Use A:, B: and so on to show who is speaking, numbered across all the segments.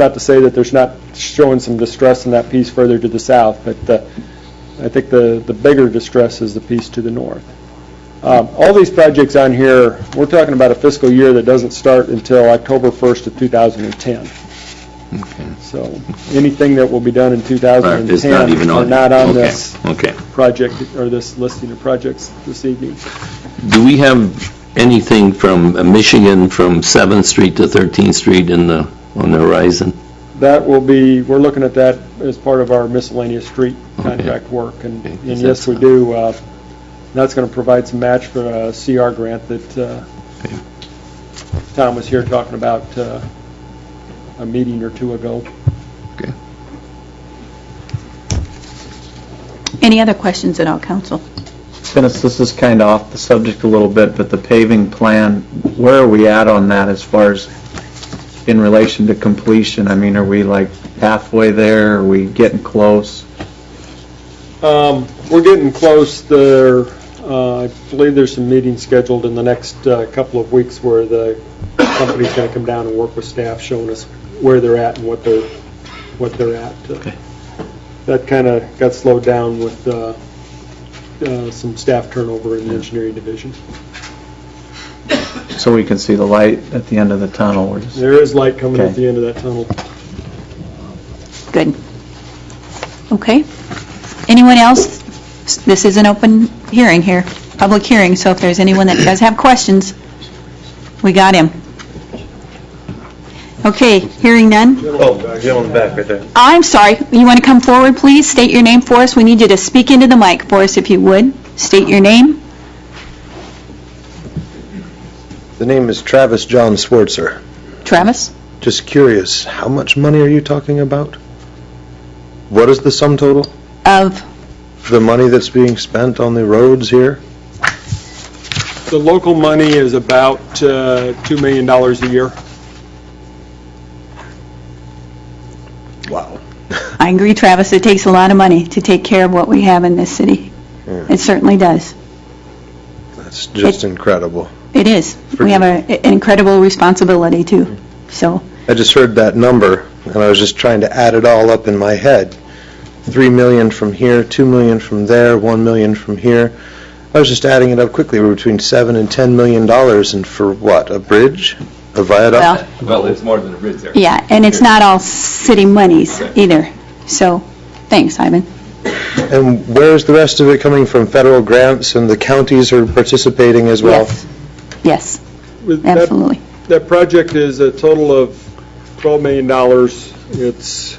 A: not to say that there's not showing some distress in that piece further to the south, but uh, I think the, the bigger distress is the piece to the north. Um, All these projects on here, we're talking about a fiscal year that doesn't start until October 1st of 2010. So anything that will be done in 2010
B: It's not even
A: are
B: on.
A: not on
B: okay,
A: this
B: Okay.
A: project, or this listing of projects this evening.
B: Do we have anything from uh, Michigan, from 7th Street to 13th Street in the, on the horizon?
A: That will be, we're looking at that as part of our miscellaneous street contract work, and
B: Okay.
A: and yes, we do. uh, That's going to provide some match for a CR grant that uh,
B: Okay.
A: Tom was here talking about uh, a meeting or two ago.
C: Any other questions at all, council?
D: Dennis, this is kind of off the subject a little bit, but the paving plan, where are we at on that as far as in relation to completion? I mean, are we like halfway there? Are we getting close?
A: Um, We're getting close. There, uh, I believe there's some meetings scheduled in the next uh, couple of weeks where the company's going to come down and work with staff, showing us where they're at and what they're, what they're at. Uh, That kind of got slowed down with uh, uh, some staff turnover in the engineering division.
D: So we can see the light at the end of the tunnel? We're just-
A: There is light coming at
D: Okay.
A: the end of that tunnel.
C: Good. Okay. Anyone else? S- This is an open hearing here, public hearing, so if there's anyone that does have questions, we got him. Okay, hearing none.
E: Oh, gentleman back right there.
C: I'm sorry, you want to come forward, please? State your name for us. We need you to speak into the mic for us, if you would. State your name.
E: The name is Travis John Swartzer.
C: Travis?
E: Just curious, how much money are you talking about? What is the sum total?
C: Of,
E: The money that's being spent on the roads here?
A: The local money is about uh, $2 million a year.
E: Wow.
C: I agree, Travis, it takes a lot of money to take care of what we have in this city.
E: Yeah.
C: It certainly does.
E: That's just incredible.
C: It is. We have a- an incredible responsibility, too. So,
E: I just heard that number, and I was just trying to add it all up in my head. Three million from here, two million from there, one million from here. I was just adding it up quickly, we're between seven and ten million dollars, and for what, a bridge? A
C: well,
E: viaduct?
F: Well, it's more than a bridge there.
C: yeah, and it's not all city monies either. So, thanks, Ivan.
E: And where's the rest of it coming from? Federal grants, and the counties are participating as well?
C: Yes. Yes,
A: With that-
C: absolutely.
A: That project is a total of $12 million. It's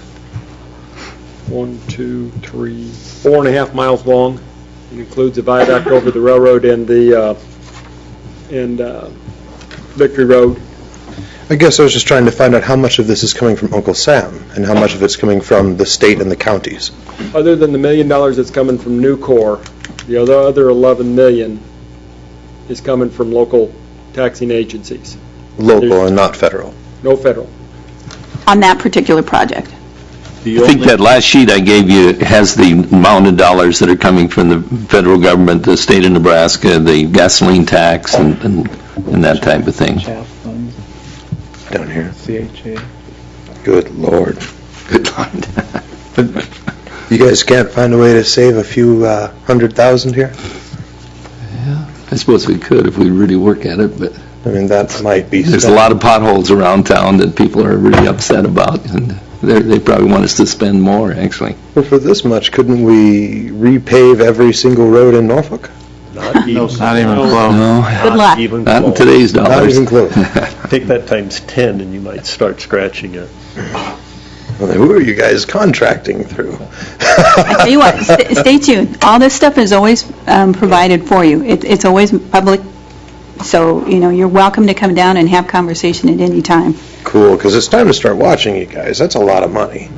A: one, two, three, four and a half miles long. It includes a viaduct over the railroad and the, uh, and uh, Victory Road.
E: I guess I was just trying to find out how much of this is coming from Uncle Sam, and how much of it's coming from the state and the counties.
A: Other than the million dollars that's coming from Nucor, the other other 11 million is coming from local taxing agencies,
E: Local and not federal.
A: no federal.
C: On that particular project.
F: The
B: I think
F: only,
B: that last sheet I gave you has the amount of dollars that are coming from the federal government, the state of Nebraska, the gasoline tax, and and and that type of thing.
D: CHAP funds,
E: Down here.
D: CHA.
E: Good lord.
B: Good line.
E: You guys can't find a way to save a few uh, hundred thousand here?
B: I suppose we could if we really work at it, but
E: I mean, that might be.
B: there's a lot of potholes around town that people are really upset about, and they're- they probably want us to spend more, actually.
E: Well, For this much, couldn't we repave every single road in Norfolk?
D: Not even close.
B: No,
C: Good luck.
B: not in today's dollars.
E: Not even close.
G: Take that times 10 and you might start scratching it.
E: Well, then Who are you guys contracting through?
C: I tell you what, st- stay tuned. All this stuff is always um, provided for you. It- It's always public, so, you know, you're welcome to come down and have conversation at any time.
E: Cool, because it's time to start watching you guys. That's a lot of money.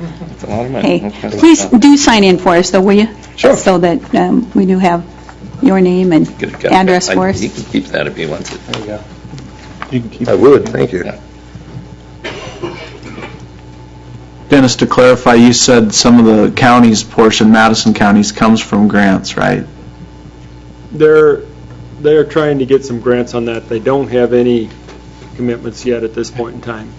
C: Hey, please do sign in for us, though, will you?
E: Sure.
C: So that um, we do have your name and
B: Good, good.
C: address
B: I-
C: for us.
B: He can keep that if he wants it.
D: You can keep-
E: I would, thank you.
D: Dennis, to clarify, you said some of the counties portion, Madison counties, comes from grants, right?
A: They're, they're trying to get some grants on that. They don't have any commitments yet at this point in time.